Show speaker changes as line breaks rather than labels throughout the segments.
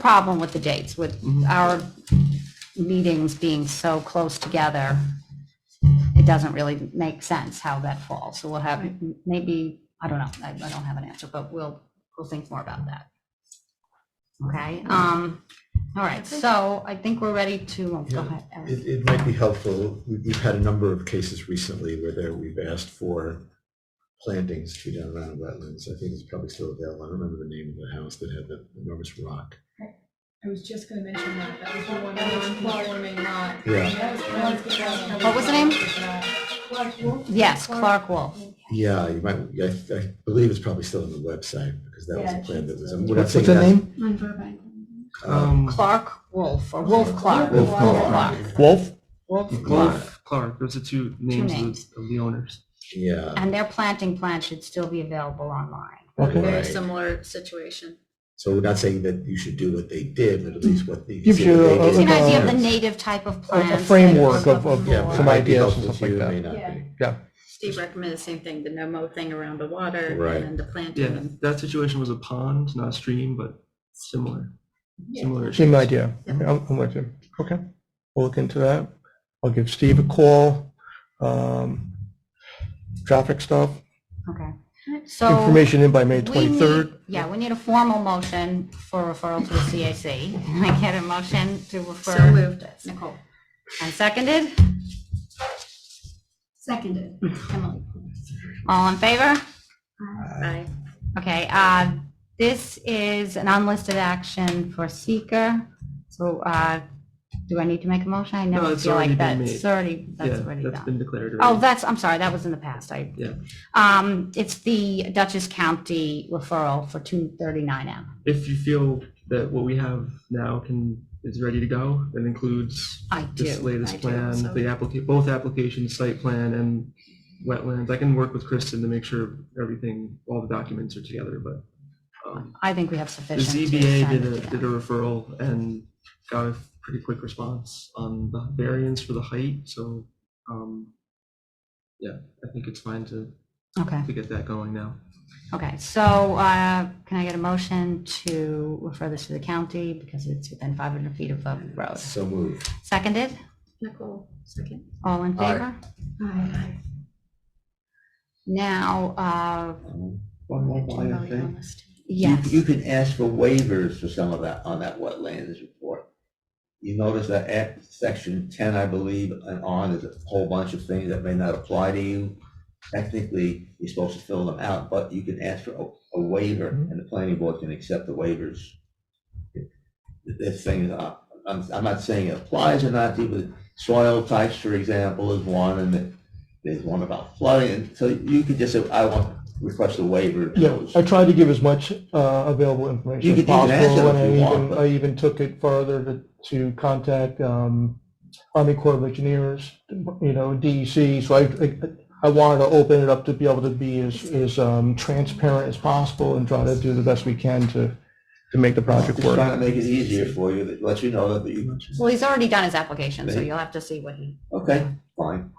problem with the dates, with
Mm-hmm.
our meetings being so close together. It doesn't really make sense how that falls. So we'll have, maybe, I don't know, I, I don't have an answer, but we'll, we'll think more about that. Okay, um, all right, so I think we're ready to, oh, go
Yeah.
ahead. Eric.
It, it might be helpful, We- we've had a number of cases recently where there, we've asked for plantings to be done around wetlands. I think it's probably still available. I don't remember the name of the house that had the enormous rock.
I was just gonna mention that, that was the one non-conforming lot.
Yeah.
That was- that was the one-
What was the name?
Clark Wolf.
Yes, Clark Wolf.
Yeah, you might, I, I believe it's probably still on the website, because that was a
Yeah,
plan that was.
it's-
we're not
What's what's
saying
her
that's-
name? Um,
On Burbank.
uh,
Clark Wolf, or Wolf Clark.
Wolf
Clark.
Clark.
Wolf?
Wolf Clark.
Wolf, Clark, those are two names of
names.
the- of the owners.
Yeah,
And their planting plan should still be available online.
Okay.
Right.
Very similar situation.
so we're not saying that you should do what they did, but at least what the.
Gives
see what
you
they
a-
It's
did.
an idea of the
Yeah.
native type of
A- a
plants. that
framework
we're
of-
looking
of-
Yeah,
for.
but it
Some
might be
ideas and
helpful
stuff
to
like
you,
that.
May not
Yeah.
be.
Yeah.
Steve recommended the same thing, the no mow thing around the water
Right.
and then the
Yeah,
planting.
that situation was a pond, not a stream, but similar, similar.
Same
issues.
idea. Yeah, I'm I'm with you. Okay. We'll look into that. I'll give Steve a call. Um, Traffic stuff,
Okay. So
information in by May
we need-
23rd.
Yeah, we need a formal motion for referral to the CAC. Can I get a motion to refer?
So moved.
Nicole. And seconded?
Seconded.
Emily. All in favor?
Aye.
Okay, uh, this is an unlisted action for seeker. So uh, do I need to make a motion? I
No,
never
it's
feel
already
like
been
that's
made.
already, that's
Yeah,
already
that's
done.
been declared
Oh,
already.
that's, I'm sorry, that was in the past. I
Yeah.
Um, it's the Dutchess County referral for two thirty-nine M.
If you feel that what we have now can, is ready to go, that includes
I
this
do.
I
latest
do
plan,
also.
the applica, both applications, site plan and wetlands. I can work with Kristen to make sure everything, all the documents are together, but um,
I think we have
The
sufficient. to
ZBA
send
did a,
it
did a
down.
referral and got a pretty quick response on the variance for the height, so, um, yeah, I think it's fine to,
Okay,
to get that going now.
okay. So, uh, can I get a motion to refer this to the county because it's within five hundred feet of the road?
So moved.
Seconded?
Nicole, second.
All in
Aye.
favor?
Aye.
Now, uh,
One more point,
Oh,
I think. You-
yes.
You can ask for waivers for some of that, on that wetlands report. You notice that at section ten, I believe, and on, there's a whole bunch of things that may not apply to you. Technically, you're supposed to fill them out, but you can ask for a, a waiver,
Mm-hmm.
and the planning board can accept the waivers. This thing, uh, I'm, I'm not saying it applies or not, but soil types, for example, is one, and there's one about flooding, and so you could just say, I want, request a waiver.
Yeah, I tried to give as much uh, available
You
information as
could even ask
possible,
them if
and I
you want,
even,
but-
I even took it further to, to contact um, Army Corps of Engineers, you know, DEC, so I, I- I wanted to open it up to be able to be as, as um, transparent as possible and try to do the best we can to, to make the project
Just trying
work.
to make it easier for you, that lets you know that you,
Well, he's already done his application, so
Thank-
you'll have to see what he,
okay, fine.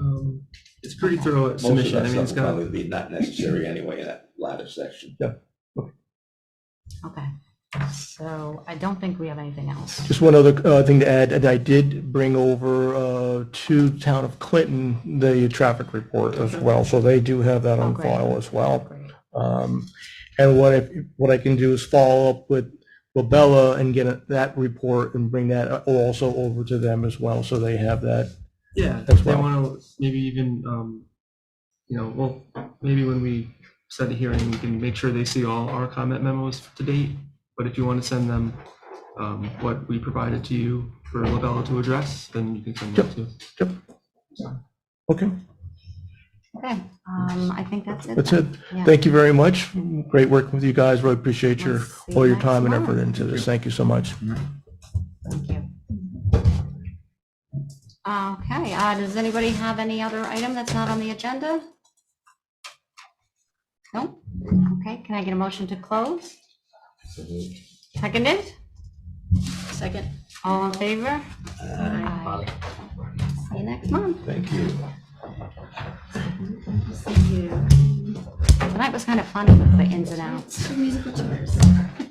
Um, It's pretty thorough
Most of
submission,
that
I mean,
stuff
it's
will
got,
probably be not necessary anyway in that latter section.
okay. So I don't think we have anything else.
Just one other uh, thing to add, and I did bring over uh, to Town of Clinton, the traffic report as well, so they do have that
Oh,
on
great.
file as well.
Great.
Um, And what if, what I can do is follow up with Lobella and get a- that report and bring that also over to them as well, so they have that.
yeah,
as
if they
well.
wanna, maybe even, um, you know, well, maybe when we set a hearing, we can make sure they see all our comment memos to date, but if you wanna send them, um, what we provided to you for Labella to address, then you can send that too.
Okay,
Okay, um, I think that's it.
that's
then.
it.
Yeah.
Thank you very much. Great working with you guys. Really appreciate your,
We'll see
all
you
your
next
time and
month.
effort into this. Thank you so much.
Thank you. Okay, uh, does anybody have any other item that's not on the agenda? No? Okay, can I get a motion to close?
So moved.
Seconded?
Second.
All in favor? Aye. See you next month.
Thank you.
Tonight was kind of funny with the ins and outs.
Musical chairs.